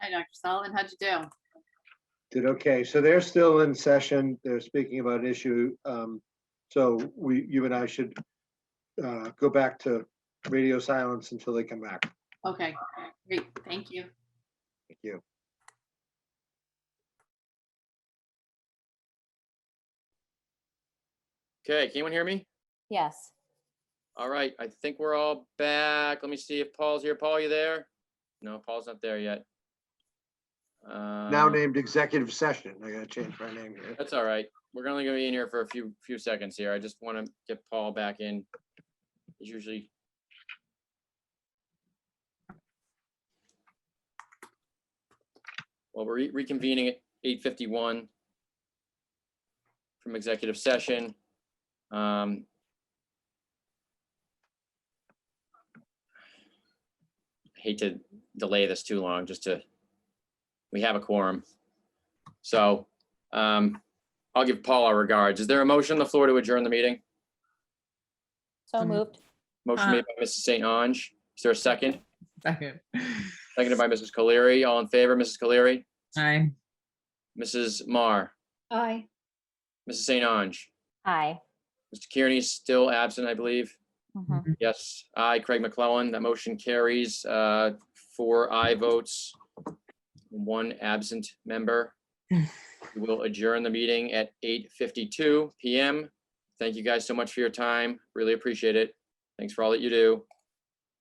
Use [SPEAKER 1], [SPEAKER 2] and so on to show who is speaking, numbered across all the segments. [SPEAKER 1] Hi, Dr. Sullivan. How'd you do?
[SPEAKER 2] Did, okay, so they're still in session, they're speaking about an issue. um, So we, you and I should uh, go back to radio silence until they come back.
[SPEAKER 1] Okay, great. Thank you.
[SPEAKER 2] Thank you.
[SPEAKER 3] Okay, can anyone hear me?
[SPEAKER 4] Yes.
[SPEAKER 3] All right, I think we're all back. Let me see if Paul's here. Paul, you there? No, Paul's not there yet.
[SPEAKER 2] Now
[SPEAKER 3] Um,
[SPEAKER 2] named executive session. I gotta change my name here.
[SPEAKER 3] That's all right. We're only gonna be in here for a few, few seconds here. I just want to get Paul back in. He's usually. Well, we're re- reconvening at eight fifty-one from executive session. Um, Hate to delay this too long, just to, we have a quorum. So um, I'll give Paul our regards. Is there a motion on the floor to adjourn the meeting?
[SPEAKER 4] So
[SPEAKER 5] Um,
[SPEAKER 4] moved.
[SPEAKER 3] Motion made by Mrs. St. Ange. Is there a second?
[SPEAKER 5] Second.
[SPEAKER 3] Seconded by Mrs. Colery. All in favor, Mrs. Colery?
[SPEAKER 5] Aye.
[SPEAKER 3] Mrs. Marr?
[SPEAKER 4] Aye.
[SPEAKER 3] Mrs. St. Ange?
[SPEAKER 4] Aye.
[SPEAKER 3] Mr. Kearney is still absent, I believe.
[SPEAKER 4] Mhm.
[SPEAKER 3] Yes, aye, Craig McClellan. That motion carries, uh, four aye votes, one absent member. We'll adjourn the meeting at eight fifty-two PM. Thank you guys so much for your time. Really appreciate it. Thanks for all that you do.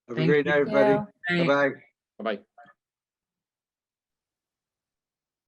[SPEAKER 2] Have a
[SPEAKER 5] Thank
[SPEAKER 2] great
[SPEAKER 5] you.
[SPEAKER 2] night, everybody.
[SPEAKER 4] Yeah.
[SPEAKER 5] Aye.
[SPEAKER 2] Bye-bye.
[SPEAKER 3] Bye-bye.